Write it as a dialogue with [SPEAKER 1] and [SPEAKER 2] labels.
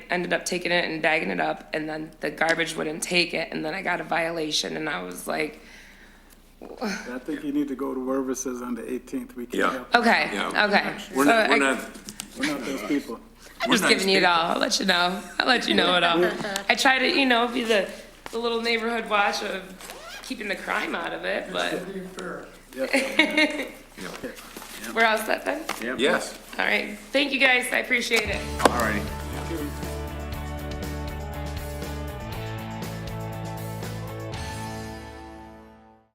[SPEAKER 1] ended up taking it and bagging it up, and then the garbage wouldn't take it, and then I got a violation, and I was like,
[SPEAKER 2] I think you need to go to wherever it says under 18th, we can't
[SPEAKER 3] Yeah.
[SPEAKER 2] help,
[SPEAKER 1] okay,
[SPEAKER 3] Yeah.
[SPEAKER 1] okay.
[SPEAKER 3] We're
[SPEAKER 1] So
[SPEAKER 3] not,
[SPEAKER 1] I-
[SPEAKER 3] we're not.
[SPEAKER 2] we're not those people.
[SPEAKER 1] I'm
[SPEAKER 3] we're
[SPEAKER 1] just
[SPEAKER 3] not
[SPEAKER 1] giving you it
[SPEAKER 3] escaping.
[SPEAKER 1] all. I'll let you know. I'll let you know it all. I try to, you know, be the, the little neighborhood watch of keeping the crime out of it, but we're all set then?
[SPEAKER 3] Yes.
[SPEAKER 1] All right. Thank you guys. I appreciate it.
[SPEAKER 3] All righty.